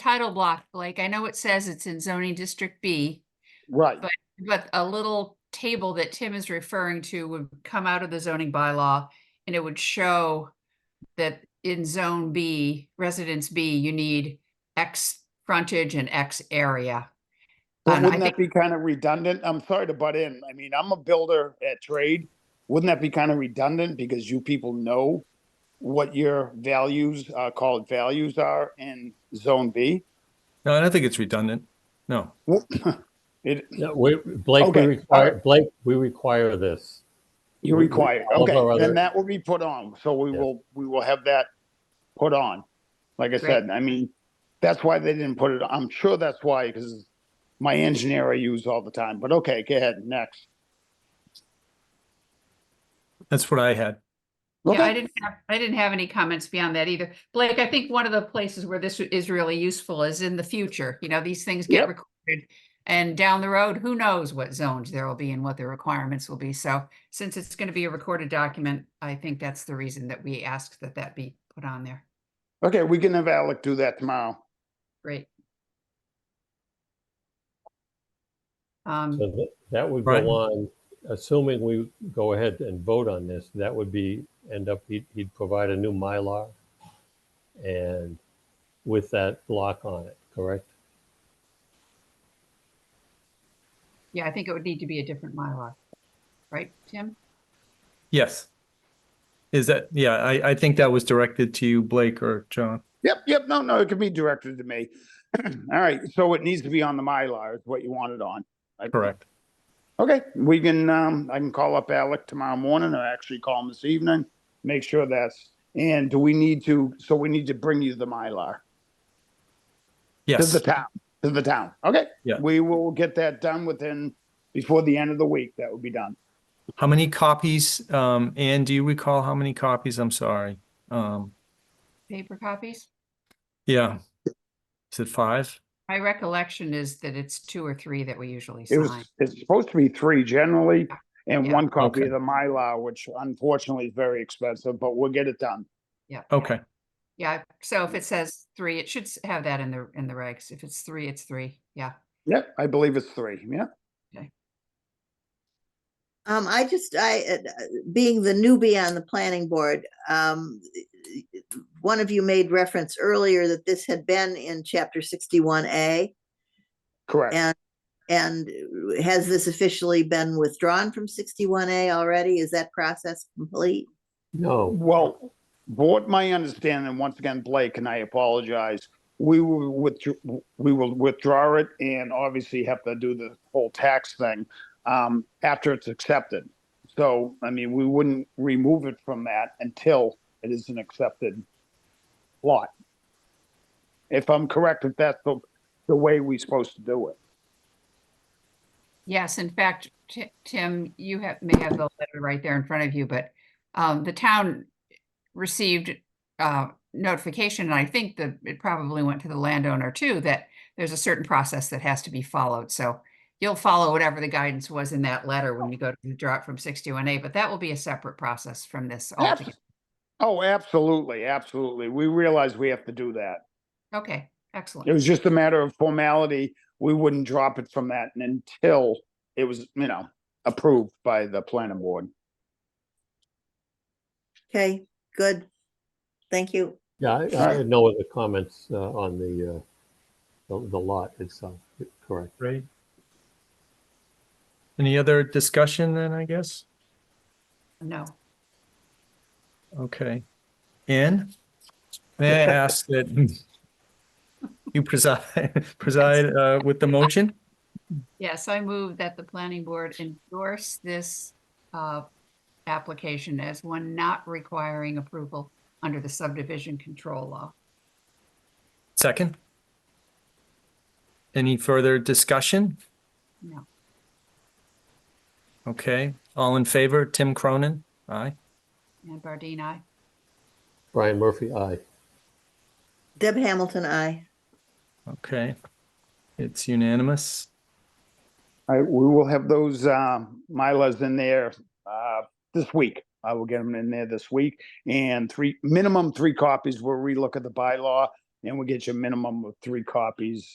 title block, Blake. I know it says it's in zoning district B, Right, but a little table that Tim is referring to would come out of the zoning bylaw and it would show that in zone B, residence B, you need X frontage and X area. but And I wouldn't that be kind of redundant? I'm sorry to butt in. I mean, I'm a builder at trade. Wouldn't that be kind of redundant because you people know what your values, uh, called values are in zone B? No, I don't think it's redundant. No. It, No, we, Blake, we Okay, require, Blake, we require this. you We- require, all of our okay, other- then that will be put on, so we Yeah. will, we will have that put on. Like I said, I mean, that's why they didn't put it, I'm sure that's why, because my engineer I use all the time, but okay, go ahead, next. That's what I had. Yeah, I Okay. didn't have, I didn't have any comments beyond that either. Blake, I think one of the places where this is really useful is in the future, you know, these things get Yep. recorded. And down the road, who knows what zones there will be and what the requirements will be. So since it's going to be a recorded document, I think that's the reason that we asked that that be put on there. Okay, we can have Alec do that tomorrow. Great. Um, So th- That would Right. go on, assuming we go ahead and vote on this, that would be, end up, he'd, he'd provide a new Mylar. And with that block on it, correct? yeah, I think it would need to be a different Mylar. Right, Tim? Yes. Is that, yeah, I, I think that was directed to you, Blake or John. Yep, yep, no, no, it can be directed to me. All right, so it needs to be on the Mylar, is what you want it on. I- Correct. Okay, we can, um, I can call up Alec tomorrow morning or actually call him this evening, make sure that's, and do we need to, so we need to bring you the Mylar to Yes. the town, to the town. Okay. Yeah. We will get that done within, before the end of the week, that would be done. How many copies? Um, Anne, do you recall how many copies? I'm sorry. Um, Paper copies? yeah. Is it five? My recollection is that it's two or three that we usually It was, sign. it's supposed to be three generally and Yeah. one copy Okay. of the Mylar, which unfortunately is very expensive, but we'll get it done. Yeah. yeah. Okay. Yeah, so if it says three, it should s- have that in the, in the regs. If it's three, it's three. Yeah. Yep, I believe it's three, yeah. Um, I just, I, uh, uh, being the newbie on the planning board, um, one of you made reference earlier that this had been in chapter sixty-one A. Correct. And, and uh, has this officially been withdrawn from sixty-one A already? Is that process complete? No, Well, what my understanding, once again, Blake, and I apologize, we will withdraw, we will withdraw it and obviously have to do the whole tax thing um, after it's accepted. So, I mean, we wouldn't remove it from that until it is an accepted lot. If I'm correct, if that's the, the way we're supposed to do it. Yes, in fact, Ti- Tim, you have, may have the letter right there in front of you, but um, the town received uh, notification, and I think that it probably went to the landowner too, that there's a certain process that has to be followed. So you'll follow whatever the guidance was in that letter when you go to withdraw it from 61A, but that will be a separate process from this Abs- altogether. Oh, absolutely, absolutely. We realize we have to do that. Okay, excellent. It was just a matter of formality. We wouldn't drop it from that until it was, you know, approved by the planning board. Okay, good. Thank you. yeah, I, I had no other comments, uh, on the, uh, the, the lot itself, correct? Right. Any other discussion then, I guess? No. Okay. Anne, may I ask that you preside, preside uh, with the motion? Yes, I move that the planning board endorse this uh, application as one not requiring approval under the subdivision control law. Second? Any further discussion? No. Okay, all in favor, Tim Cronin? Aye. And Bardine, aye. Brian Murphy, aye. Deb Hamilton, I. Okay. It's unanimous. All right, we will have those, um, Mylas in there, uh, this week. I will get them in there this week and three, minimum three copies. We'll relook at the bylaw and we get you a minimum of three copies